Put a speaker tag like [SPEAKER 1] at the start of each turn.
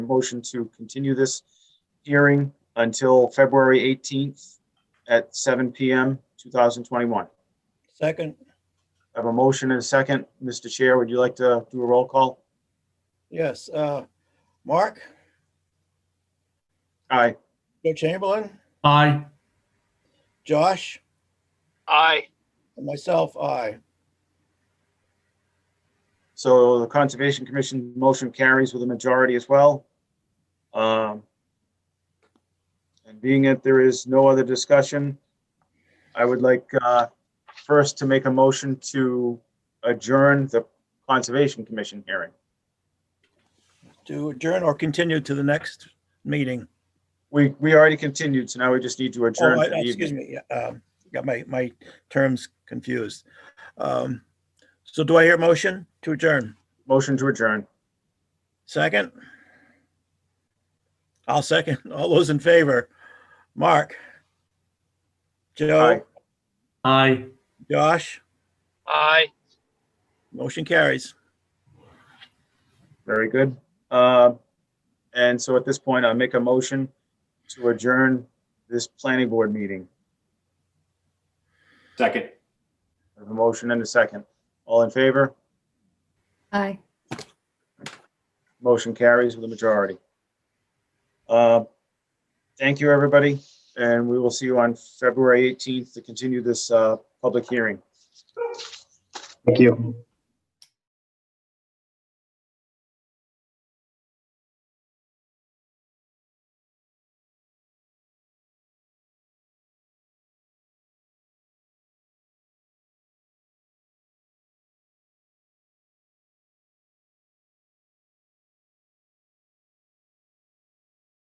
[SPEAKER 1] motion to continue this hearing until February 18th at 7 PM, 2021.
[SPEAKER 2] Second,
[SPEAKER 1] I have a motion and a second. Mr. Chair, would you like to do a roll call?
[SPEAKER 2] yes, uh, Mark,
[SPEAKER 1] Aye.
[SPEAKER 2] Joe Chamberlain,
[SPEAKER 3] Aye.
[SPEAKER 2] Josh,
[SPEAKER 4] Aye,
[SPEAKER 2] and myself, I.
[SPEAKER 1] So the Conservation Commission motion carries with a majority as well. Um, And being that there is no other discussion, I would like uh, first to make a motion to adjourn the Conservation Commission hearing.
[SPEAKER 2] To adjourn or continue to the next meeting.
[SPEAKER 1] We, we already continued, so now we just need to adjourn
[SPEAKER 2] Oh, I-
[SPEAKER 1] for the
[SPEAKER 2] I- Excuse
[SPEAKER 1] evening.
[SPEAKER 2] me, yeah, um, got my, my terms confused. Um, So do I hear a motion to adjourn?
[SPEAKER 1] Motion to adjourn.
[SPEAKER 2] Second? I'll second. All those in favor? Mark?
[SPEAKER 1] Aye.
[SPEAKER 2] Joe?
[SPEAKER 3] Aye.
[SPEAKER 2] Josh?
[SPEAKER 4] aye.
[SPEAKER 2] Motion carries.
[SPEAKER 1] Very good. Uh, And so at this point, I make a motion to adjourn this planning board meeting.
[SPEAKER 5] Second.
[SPEAKER 1] I have A motion and a second. All in favor?
[SPEAKER 6] Aye.
[SPEAKER 1] Motion carries with a majority. Uh, Thank you, everybody, and we will see you on February 18th to continue this uh, public hearing.
[SPEAKER 7] Thank you.